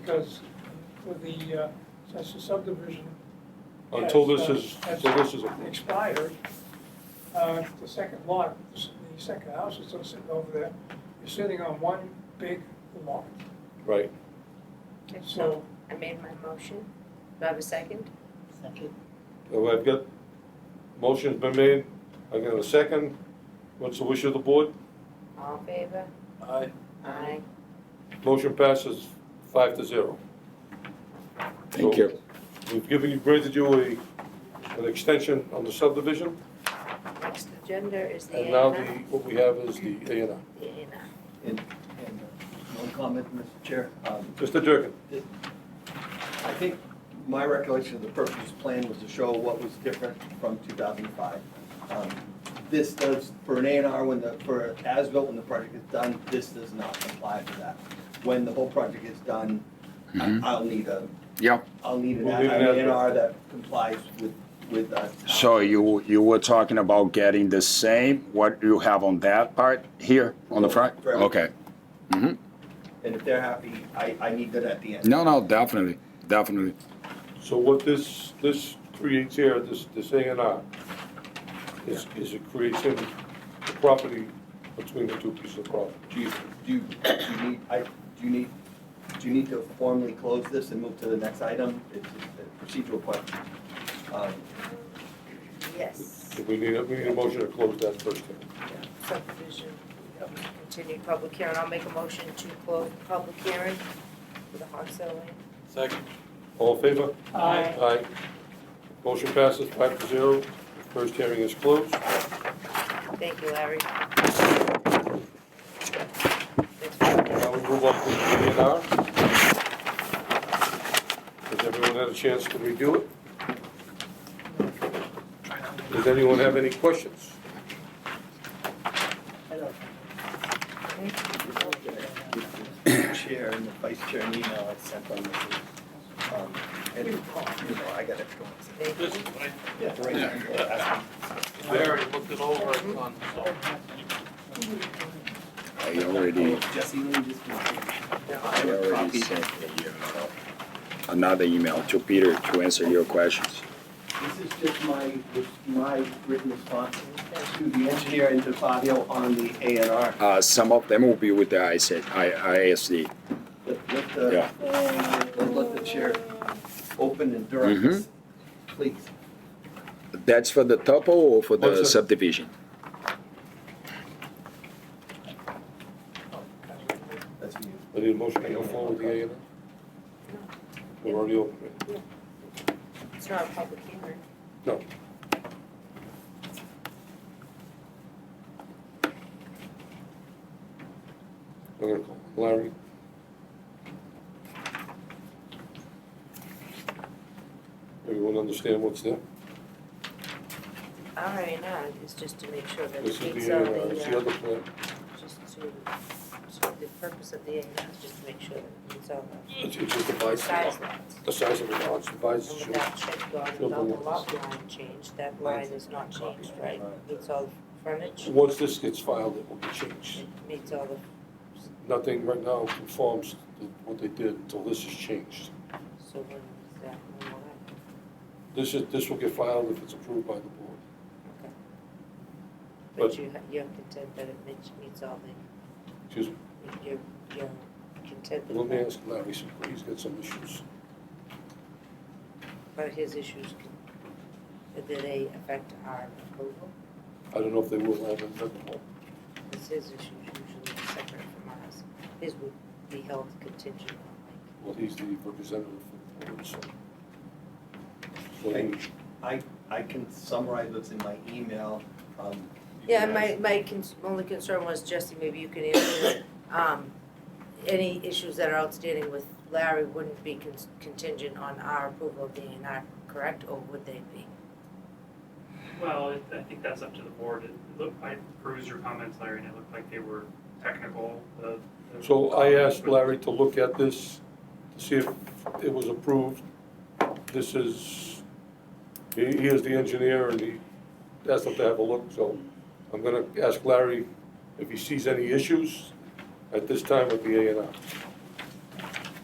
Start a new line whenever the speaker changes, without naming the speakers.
because for the, uh, since the subdivision.
Until
has,
this
uh,
is,
has
until this is approved.
Expired, uh, the second lot, the second house is still sitting over there, is sitting on one big lot.
Right.
Okay,
So-
I made my motion. Do I have a second?
Second.
So I've got, motion's been made. I got a second. What's the wish of the board?
All in favor?
Aye.
Aye.
Motion passes five to zero.
Thank you.
We've given you, granted you a, an extension on the subdivision,
Next agenda is the A
and
and
now
R.
the, what we have is the A and R.
The A and R.
And, and uh, one comment, Mr. Chair. Um,
Mr. Durkin,
I think my recollection of the purpose plan was to show what was different from two thousand and five. Um, This does, for an A and R, when the, for as-built, when the project is done, this does not comply to that. When the whole project is done, I-
Mhm.
I'll need a,
Yeah,
I'll need an
We'll leave it
A
as-
and R that complies with, with us.
so you, you were talking about getting the same, what you have on that part here, on the front?
For everything.
Okay. hmm
And if they're happy, I, I need that at the end.
No, no, definitely, definitely.
so what this, this creates here, this, this A and R, is, is it creates in the property between the two pieces of property.
Do you, do you, do you need, I, do you need, do you need to formally close this and move to the next item? It's a procedural question. Um,
Yes.
So We need, a- we need a motion to close that first hearing.
Subdivision, um, continued public hearing. I'll make a motion to close the public hearing for the hard selling.
Second.
All in favor?
Aye.
Aye. Motion passes five to zero. First hearing is closed.
Thank you, Larry. Thanks for coming.
Now we move on to the A and R. Has everyone had a chance to review it? Does anyone have any questions?
the Chair and the vice chair an email I sent on this. is, um, And, you know, I got it going.
Thank you.
This, I,
Yeah, the right people are asking.
I already looked it over, it's on, so.
I already,
Jesse, let me just.
I already sent a, uh, another email to Peter to answer your questions.
This is just my, my written response to the engineer and to Fabio on the A and R.
Uh, some of them will be with the ISA, I, ISD.
Let, let the,
Yeah.
let, let the chair open and direct us, please.
That's for the topo or for the
What's that?
subdivision?
That's for you.
I need a motion to go forward with the A and R. We're already open. right?
It's not a public hearing.
No. I'm gonna call Larry. Everyone understand what's there?
All right, now, it's just to make sure that
This
it
is
meets
the,
all
uh, it's
the,
the
uh,
other plan.
just to, so the purpose of the A and R is just to make sure that it meets all
It's it's just the
the
vice,
size lines.
the size of the lots, the vice,
And
is
without check guard,
Show the
without the
lots.
lot line change, that line is not changed, right? Meets all the
yours.
frontage,
Once this gets filed, it will be changed.
it meets all the,
Nothing right now conforms to what they did until this is changed.
so when is that, when will that?
This is, this will get filed if it's approved by the board. But-
But you, ha- you're content that it meets, meets all the,
Excuse me,
you're, you're content
let me
that,
ask Larry, some- he's got some issues.
but his issues, can- did they affect our approval?
I don't know if they will, I haven't read them all.
Because his issues usually are separate from ours. His would be held contingent on
Well, he's the representative for the board, so. So
Okay.
he-
I can summarize what's in my email. um, you
Yeah,
can
my, my cons- only concern was, Jesse, maybe you can answer, um, any issues that are outstanding with Larry wouldn't be con- contingent on our approval of the A and R, correct, or would they be?
Well, I- I think that's up to the board. It looked, I perused your comments, Larry, and it looked like they were technical. the- the-
So I asked Larry to look at this, to see if it was approved. This is, he, he is the engineer and he asked him to have a look, so I'm gonna ask Larry if he sees any issues at this time with the A and R.